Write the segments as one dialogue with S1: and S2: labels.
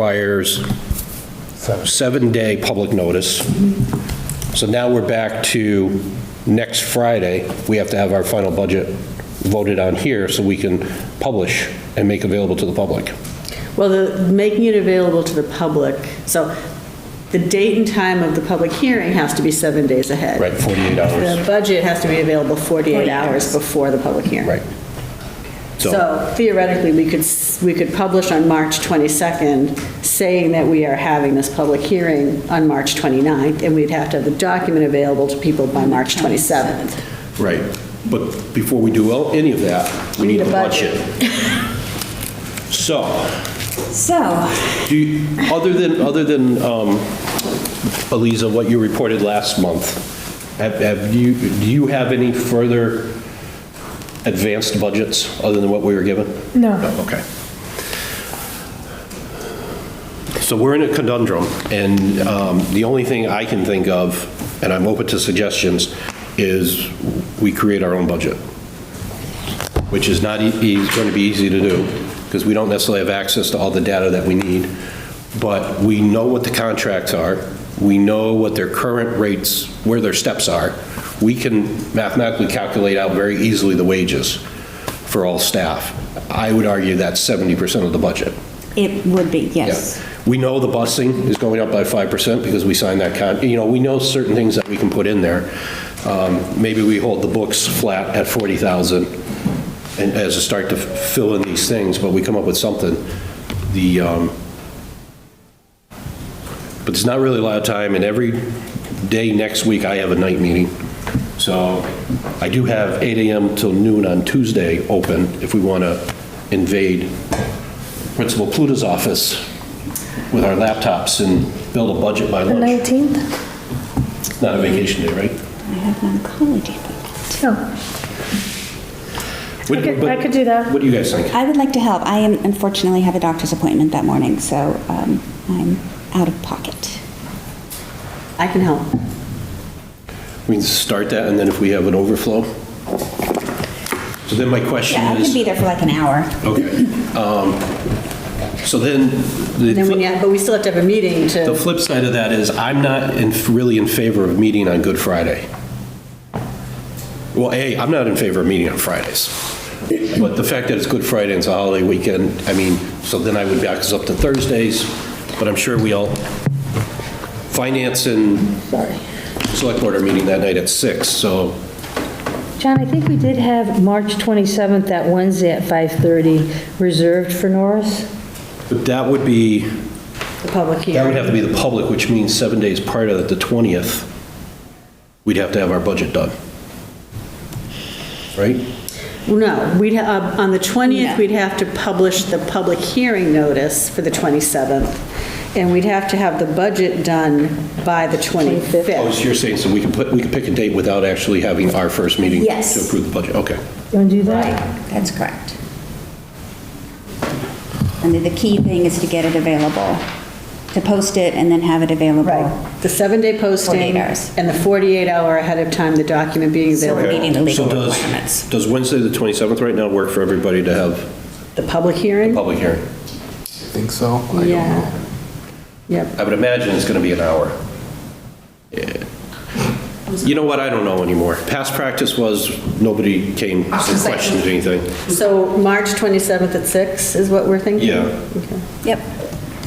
S1: requires seven-day public notice. So now we're back to next Friday, we have to have our final budget voted on here so we can publish and make available to the public.
S2: Well, the, making it available to the public, so the date and time of the public hearing has to be seven days ahead.
S1: Right, 48 hours.
S2: The budget has to be available 48 hours before the public hearing.
S1: Right. So,
S2: So theoretically, we could, s- we could publish on March 22nd, saying that we are having this public hearing on March 29th, and we'd have to have the document available to people by March 27th.
S1: right, but before we do el- any of that, we need a budget. So,
S3: So,
S1: Do you, other than, other than, um, Eliza, what you reported last month, have, have you, do you have any further advanced budgets other than what we were given?
S4: No.
S1: Okay. So we're in a conundrum, and, um, the only thing I can think of, and I'm open to suggestions, is we create our own budget which is not going to be easy to do, because we don't necessarily have access to all the data that we need. But we know what the contracts are, we know what their current rates, where their steps are. We can mathematically calculate out very easily the wages for all staff. I would argue that's 70% of the budget.
S3: it would be,
S1: Yeah.
S3: yes.
S1: We know the busing is going up by 5% because we signed that con, you know, we know certain things that we can put in there. Um, Maybe we hold the books flat at 40,000 and as a start to fill in these things, but we come up with something. The, um, but there's not really a lot of time, and every day next week, I have a night meeting. So I do have 8 AM till noon on Tuesday open if we want to invade Principal Pluto's office with our laptops and build a budget by
S4: The
S1: lunch.
S4: 19th?
S1: It's not a vacation day, right?
S3: I have an oncology appointment.
S4: Oh,
S1: What-
S4: I could-
S1: what-
S4: I could do that.
S1: What do you guys think?
S3: I would like to help. I am unfortunately have a doctor's appointment that morning, so um, I'm out of pocket.
S2: I can help.
S1: We can start that, and then if we have an overflow? So then my question
S3: Yeah, I could be
S1: is,
S3: there for like an hour.
S1: okay. um, So then, the
S2: Then we,
S1: flip-
S2: yeah, but we still have to have a meeting
S1: the
S2: to,
S1: flip side of that is, I'm not in- really in favor of meeting on Good Friday. Well, A, I'm not in favor of meeting on Fridays. But the fact that it's Good Friday and it's a holiday weekend, I mean, so then I would back us up to Thursdays, but I'm sure we all, finance and select board are meeting that night at six. so
S5: John, I think we did have March 27th, that Wednesday at 5:30, reserved for Norris.
S1: that would be,
S2: the public
S1: that would
S2: hearing.
S1: have to be the public, which means seven days prior to the 20th, we'd have to have our budget done. Right?
S2: No, we'd, ha- uh, on the 20th,
S3: No.
S2: we'd have to publish the public hearing notice for the 27th, and we'd have to have the budget done by the 25th.
S1: Oh, so you're saying, so we can put, we can pick a date without actually having our first meeting?
S3: Yes.
S1: To approve the budget, okay.
S5: You want to do that?
S3: That's correct. And the- the key thing is to get it available, to post it and then have it available.
S2: Right, the seven-day posting
S3: 48 hours.
S2: and the 48-hour ahead of time, the document being
S3: So we're
S2: available.
S3: meeting the legal
S1: So does-
S3: requirements.
S1: Does Wednesday, the 27th, right now, work for everybody to have
S2: The public hearing?
S1: public hearing?
S6: Think so? I don't know.
S2: Yeah. Yep,
S1: I would imagine it's going to be an hour. Yeah. You know what, I don't know anymore. Past practice was, nobody came and questioned anything.
S2: so March 27th at six is what we're thinking?
S1: Yeah.
S2: Okay.
S3: Yep.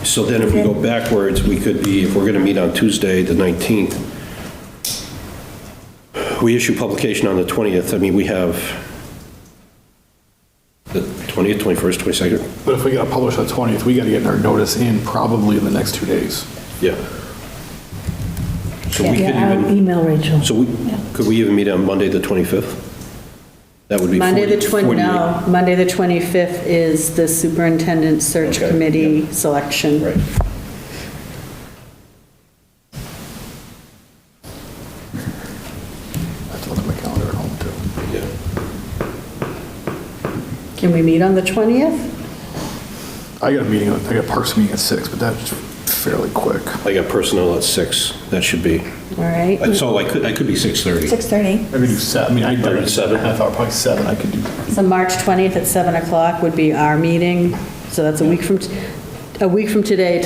S1: So then if we go backwards, we could be, if we're going to meet on Tuesday, the 19th, we issue publication on the 20th, I mean, we have the 20th, 21st, 22nd,
S6: But if we gotta publish the 20th, we gotta get our notice in probably in the next two days.
S1: yeah. So we could
S5: Yeah, I'll
S1: even,
S5: email Rachel.
S1: so we, could we even meet on Monday, the 25th? That would be
S2: Monday, the
S1: 40
S2: 20,
S1: 48.
S2: no, Monday, the 25th is the superintendent search
S1: Okay,
S2: committee selection.
S1: Right.
S6: I have to look at my calendar at home too.
S1: Yeah.
S2: Can we meet on the 20th?
S6: I got a meeting, I got a parks meeting at six, but that's fairly quick.
S1: I got personnel at 6, that should be,
S2: All right,
S1: so I could, I could be 6:30.
S3: 6:30.
S6: I could do seven, I mean, I.
S1: Or seven.
S6: I thought probably seven, I could do.
S2: so March 20th at 7 o'clock would be our meeting, so that's a week from, t- a week from today